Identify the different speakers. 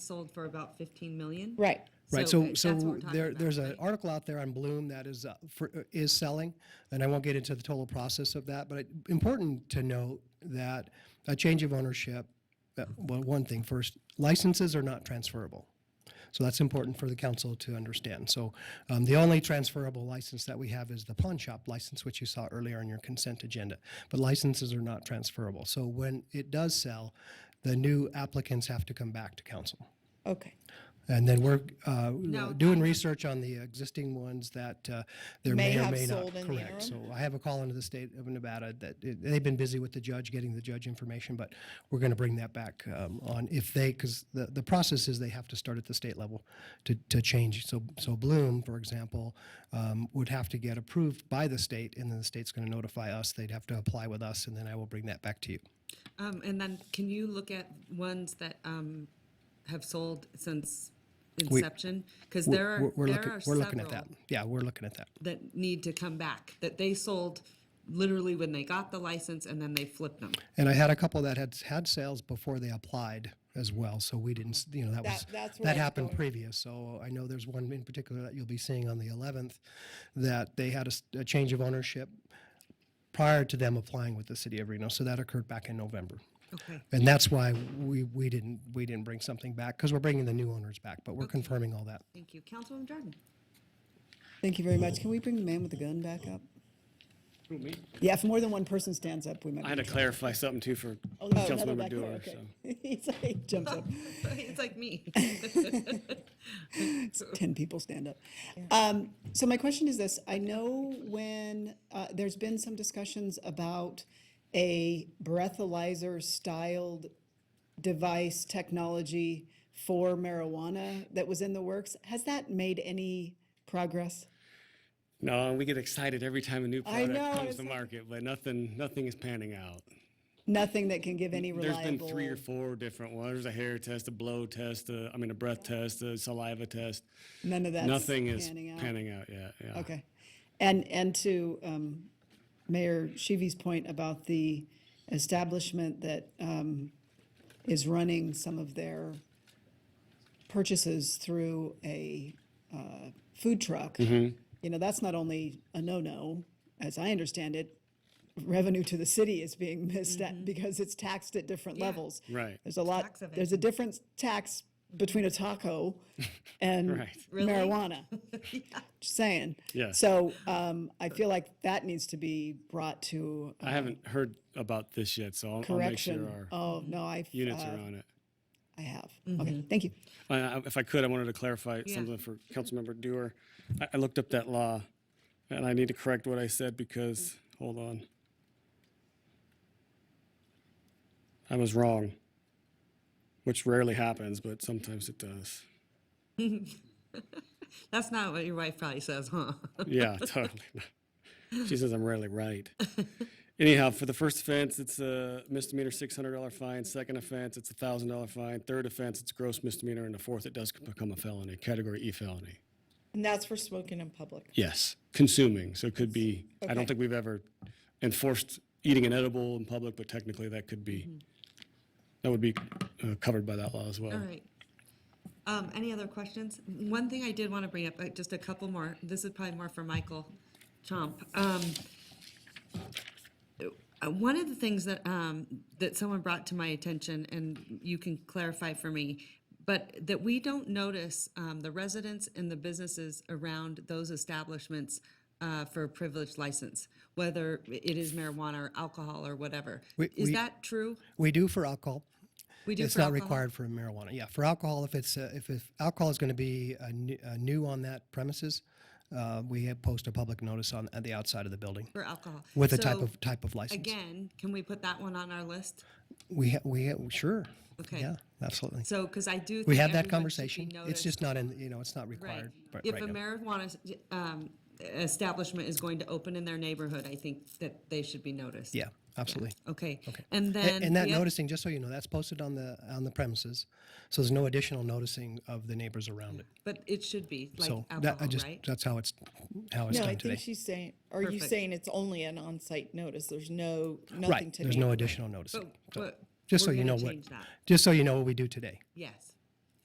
Speaker 1: sold for about 15 million.
Speaker 2: Right.
Speaker 3: Right,
Speaker 1: So,
Speaker 3: so,
Speaker 1: right, that's what
Speaker 3: so
Speaker 1: we're talking
Speaker 3: there,
Speaker 1: about,
Speaker 3: there's an
Speaker 1: right?
Speaker 3: article out there on Bloom that is, uh, for, uh, is selling, and I won't get into the total process of that, but it- important to note that a change of ownership, uh, well, one thing first, licenses are not transferable. So that's important for the council to understand. So um, the only transferable license that we have is the pawn shop license, which you saw earlier on your consent agenda. But licenses are not transferable. So when it does sell, the new applicants have to come back to council.
Speaker 2: Okay.
Speaker 3: And then we're uh,
Speaker 1: No,
Speaker 3: doing research on the existing ones that uh, there
Speaker 2: May
Speaker 3: may or
Speaker 2: have
Speaker 3: may not.
Speaker 2: sold in the
Speaker 3: Correct. So I have a call into the state of Nevada that, it- they've been busy with the judge, getting the judge information, but we're going to bring that back um, on if they, because the, the process is they have to start at the state level to, to change. So, so Bloom, for example, um, would have to get approved by the state, and then the state's going to notify us. They'd have to apply with us, and then I will bring that back to you.
Speaker 1: Um, and then can you look at ones that, um, have sold since inception? Because
Speaker 3: We're-
Speaker 1: there are,
Speaker 3: we're- we're
Speaker 1: there
Speaker 3: looking-
Speaker 1: are
Speaker 3: We're looking at
Speaker 1: several
Speaker 3: that. Yeah, we're looking at that.
Speaker 1: That need to come back, that they sold literally when they got the license and then they flipped them.
Speaker 3: And I had a couple that had had sales before they applied as well, so we didn't, s- you know, that
Speaker 2: That-
Speaker 3: was,
Speaker 2: that's where I
Speaker 3: that
Speaker 2: was
Speaker 3: happened
Speaker 2: going.
Speaker 3: previous. So I know there's one in particular that you'll be seeing on the 11th, that they had a s- a change of ownership prior to them applying with the city of Reno, so that occurred back in November.
Speaker 1: Okay.
Speaker 3: And that's why we, we didn't, we didn't bring something back, because we're bringing the new owners back, but we're confirming all that.
Speaker 1: Thank you. Councilwoman Jordan?
Speaker 4: Thank you very much. Can we bring the man with the gun back up?
Speaker 5: Who, me?
Speaker 4: Yeah, if more than one person stands up, we might.
Speaker 5: I had to clarify something too for
Speaker 4: Oh, there's another
Speaker 5: Councilmember
Speaker 4: back there,
Speaker 5: Dewar,
Speaker 4: okay.
Speaker 5: so.
Speaker 4: He's like, he jumps up.
Speaker 1: It's like me.
Speaker 4: Ten people stand up. Um, so my question is this: I know when uh, there's been some discussions about a breathalyzer-styled device technology for marijuana that was in the works. Has that made any progress?
Speaker 5: No, we get excited every time a new
Speaker 4: I
Speaker 5: product
Speaker 4: know,
Speaker 5: comes
Speaker 4: it's
Speaker 5: to
Speaker 4: like-
Speaker 5: market, but nothing, nothing is panning out.
Speaker 4: Nothing that can give any
Speaker 5: There's
Speaker 4: reliable.
Speaker 5: been three or four different ones. There's a hair test, a blow test, a, I mean, a breath test, a saliva test.
Speaker 4: None of that's
Speaker 5: Nothing is
Speaker 4: panning out.
Speaker 5: panning out yet, yeah.
Speaker 4: Okay. And, and to um, Mayor Shivi's point about the establishment that um, is running some of their purchases through a uh, food truck,
Speaker 5: Mm-hmm.
Speaker 4: you know, that's not only a no-no, as I understand it, revenue to the city is being missed at because it's taxed at different levels.
Speaker 5: Right.
Speaker 4: There's a lot,
Speaker 1: Mm-hmm. Tax of it.
Speaker 4: there's a different tax between a taco and
Speaker 5: Right.
Speaker 1: Really?
Speaker 4: marijuana. Just saying.
Speaker 5: Yeah.
Speaker 4: So um, I feel like that needs to be brought to uh,
Speaker 5: I haven't heard about this yet, so I'll, I'll make sure
Speaker 4: correction.
Speaker 5: our
Speaker 4: Oh, no, I,
Speaker 5: units are
Speaker 4: uh,
Speaker 5: on it.
Speaker 4: I have.
Speaker 2: Mm-hmm.
Speaker 4: Okay, thank you.
Speaker 5: Uh, I- If I could, I wanted to clarify something for Councilmember Dewar. I, I looked up that law, and I need to correct what I said because, hold on. I was wrong, which rarely happens, but sometimes it does.
Speaker 1: That's not what your wife probably says, huh?
Speaker 5: Yeah, totally. She says I'm rarely right. Anyhow, for the first offense, it's a misdemeanor six hundred dollar fine. Second offense, it's a thousand dollar fine. Third offense, it's gross misdemeanor, and the fourth, it does become a felony, category E felony.
Speaker 2: And that's for smoking in public.
Speaker 5: Yes, consuming. So it could be, I don't think we've ever enforced eating an edible in public, but technically that could be, that would be uh, covered by that law as well.
Speaker 1: Mm-hmm. All right. Um, any other questions? One thing I did want to bring up, uh, just a couple more, this is probably more for Michael Chomp. Um, uh, one of the things that, um, that someone brought to my attention, and you can clarify for me, but that we don't notice, um, the residents and the businesses around those establishments, uh, for a privileged license, whether it is marijuana or alcohol or whatever.
Speaker 3: We-
Speaker 1: Is
Speaker 3: we-
Speaker 1: that true?
Speaker 3: We do for alcohol.
Speaker 1: We do
Speaker 3: It's
Speaker 1: for
Speaker 3: not
Speaker 1: alcohol?
Speaker 3: required for marijuana. Yeah, for alcohol, if it's, uh, if, if alcohol is going to be uh, new- uh, new on that premises, uh, we have post a public notice on, at the outside of the building
Speaker 1: For alcohol.
Speaker 3: with a type
Speaker 1: So-
Speaker 3: of, type of license.
Speaker 1: Again, can we put that one on our list?
Speaker 3: We, ha- we, ha- sure.
Speaker 1: Okay.
Speaker 3: Yeah, absolutely.
Speaker 1: So, because I do.
Speaker 3: We
Speaker 1: think everyone
Speaker 3: had
Speaker 1: should
Speaker 3: that
Speaker 1: be
Speaker 3: conversation. It's
Speaker 1: noticed.
Speaker 3: just not in, you know, it's not
Speaker 1: Right.
Speaker 3: required. but
Speaker 1: If
Speaker 3: right
Speaker 1: a
Speaker 3: now.
Speaker 1: marijuana s- um, establishment is going to open in their neighborhood, I think that they should be noticed.
Speaker 3: Yeah, absolutely.
Speaker 1: Okay, and
Speaker 3: A-
Speaker 1: then.
Speaker 3: And that
Speaker 1: the oth-
Speaker 3: noticing, just so you know, that's posted on the, on the premises. So there's no additional noticing of the neighbors around it.
Speaker 1: But it should be like
Speaker 3: So that, I
Speaker 1: alcohol,
Speaker 3: just,
Speaker 1: right?
Speaker 3: that's how it's, how it's
Speaker 2: No, I
Speaker 3: done
Speaker 2: think
Speaker 3: today.
Speaker 2: she's saying, are you
Speaker 1: Perfect.
Speaker 2: saying it's only an on-site notice? There's no, nothing
Speaker 3: Right,
Speaker 2: to
Speaker 3: there's
Speaker 2: be-
Speaker 3: no additional noticing.
Speaker 1: But
Speaker 3: Just so
Speaker 1: we're
Speaker 3: you know
Speaker 1: gonna
Speaker 3: what,
Speaker 1: change that.
Speaker 3: just so you know what we do today.
Speaker 1: Yes,